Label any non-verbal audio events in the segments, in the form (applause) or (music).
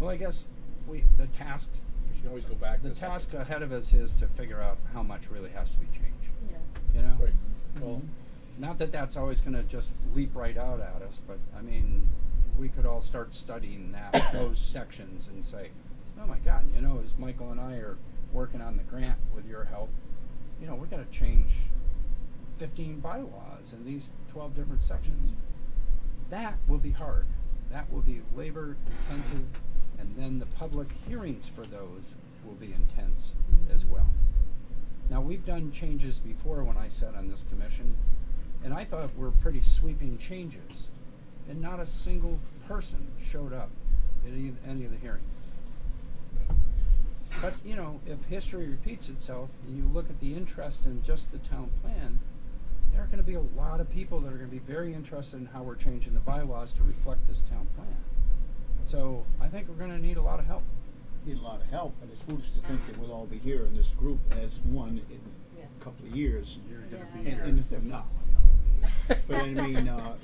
Well, I guess we, the task, You can always go back. to the second- task ahead of us is to figure out how much really has to be changed, Yeah. you know? Right. Well, Not that that's always gonna just leap right out at us, but I mean, we could all start studying that, (coughs) those sections and say, oh my God, you know, as Michael and I are working on the grant with your help, you know, we gotta change fifteen bylaws in these twelve different sections. That will be hard. That will be labor intensive, and then the public hearings for those will be intense as well. Now, we've done changes before when I sat on this commission, and I thought were pretty sweeping changes, and not a single person showed up at any, any of the hearings. But, you know, if history repeats itself and you look at the interest in just the town plan, there are gonna be a lot of people that are gonna be very interested in how we're changing the bylaws to reflect this town plan. So I think we're gonna need a lot of help. need a lot of help, but it's foolish to think that we'll all be here in this group as one in Yeah. a couple of years. You're gonna Yeah, be I And, here. know. and if they're not, I'm not gonna (laughs) be here. but I mean, uh,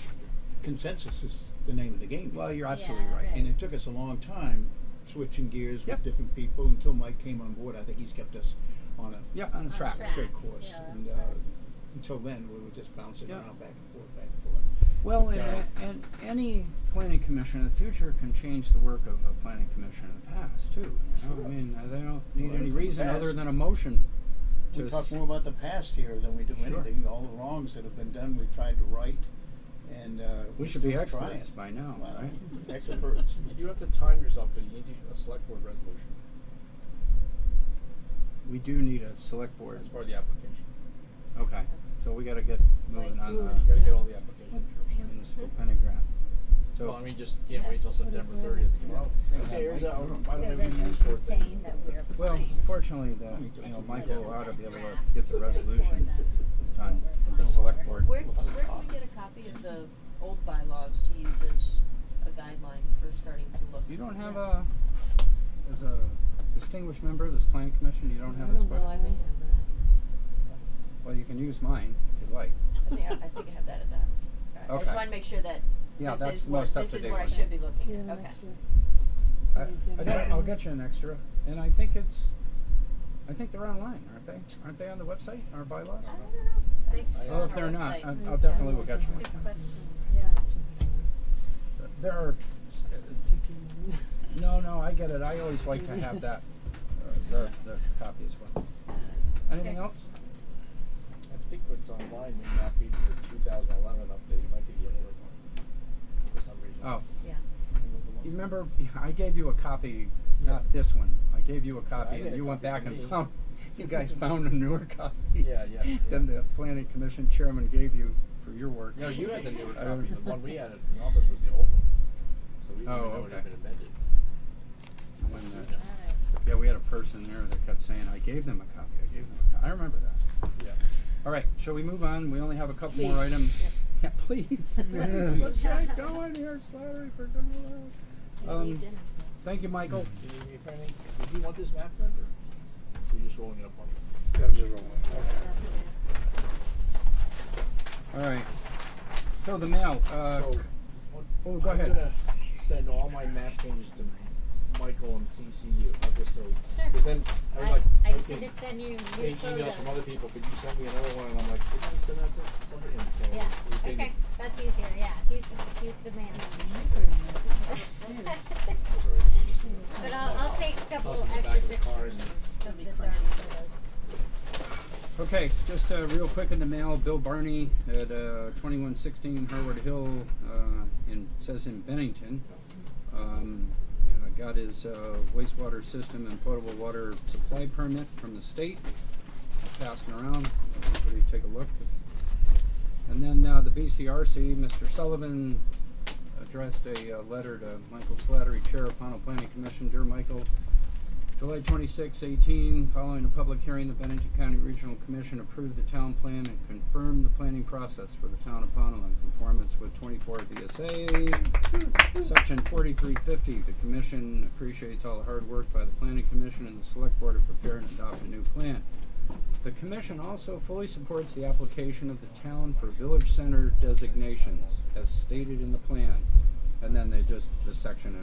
consensus is the name of the game. Well, you're Yeah, absolutely right. and it took us a long time switching gears Yep. with different people until Mike came on board. I think he's kept us on a Yep, on the On track. track. straight course, Yeah, and uh, that's right. until then we were just bouncing Yeah. around back and forth, back and forth. Well, But, and, uh, and any planning commission in the future can change the work of a planning commission in the past too. You know? I Sure. mean, uh, they don't need Learn from any the reason other past. than a motion. to We talk s- more about the past here than we do Sure. anything. All the wrongs that have been done, we've tried to right, and uh, We we're should be still trying. experts by now, Well, right? (laughs) Experts. You do have to time yourself, but you need to- a select board resolution. We do need a select board. That's part of the application. Okay, so we gotta get moving Like, on do the it. You gotta get all the Uh, What applications. municipal planning grant. So Well, I mean, just can't wait till What is September that? thirtieth tomorrow. Yeah. Okay, here's our, by the The way, we can use for resolution things. saying that we're Well, applying. fortunately, the, Let me you know, just- Michael Like, ought to be able to get draft the before resolution the- done before with the select board. Where, where can we get a copy of the old bylaws to use as a guideline for starting to look? You don't have a, as a distinguished member of this planning commission, you don't have this book? Well, I may have Well, you can use mine if you like. that. I think, I- I think I have that at that. Alright, I Okay. just wanna make sure that Yeah, this that's is what, most up this to is date what I one. should be looking at, okay. I, I don't, I'll get you an extra, and I think it's, I think they're online, aren't they? Aren't they on the website, our bylaws? I don't know. They That's should. Well, on if our they're not, website. I, I'll definitely will get you Good one. question, yeah. There are, s- no, no, I get it, I always like to have that, uh, the, the copy as well. Anything Okay. else? I think what's online may not be the two thousand eleven update, it might be the older one, for some reason. Oh, Yeah, you remember, (laughs) I gave you a copy, not Yeah. this one, I gave you a copy, did and a you went copy back for and me. found, (laughs) (laughs) you guys found a newer copy. Yeah, yeah, yeah. (laughs) Than the planning commission chairman gave you for your work. No, you had the newer I copy, the (laughs) don't- one we had in the office was the old one. So we didn't Uh, Oh, even know it okay. had been amended. When the- Yeah. Alright. Yeah, we had a person there that kept saying, I gave them a copy, I gave them a copy. I remember that. Yeah. All right, shall we move on? We only have a couple more items. (laughs) Yeah, (laughs) please. Let's get going here, Slattery, for going on. Maybe we Um, didn't. Thank you, Michael. Do you need me for anything? Did you want this map then, or are you just rolling it up on me? All right. So the mail, uh, So, what- oh, go ahead. I'm gonna send all my map changes to Michael and CCU, I'll just so, Sure. cause then, I was I, like, I I was just need getting to send you new getting emails photos. from other people, but you sent me another one, and I'm like, did I send that to somebody? And so Yeah, we think- okay, that's easier, yeah, he's, he's the man. sorry, just- (laughs) But I'll, I'll take a couple Toss it extra back in the car pictures of the dark photos. okay, just uh, real quick in the mail, Bill Barney at uh, 2116 Harvard Hill, uh, in, says in Bennington. Um, uh, got his uh, wastewater system and potable water supply permit from the state. Passing around, everybody take a look. And then uh, the BCRC, Mr. Sullivan addressed a uh, letter to Michael Slattery, Chair of Pono Planning Commission. Dear Michael, July 26, 18, following a public hearing, the Bennington County Regional Commission approved the town plan and confirmed the planning process for the town of Pownell in conformance with 24 VSA. Section 4350, the commission appreciates all the hard work by the planning commission and the select board to prepare and adopt a new plan. The commission also fully supports the application of the town for village center designations as stated in the plan. And then they just, the section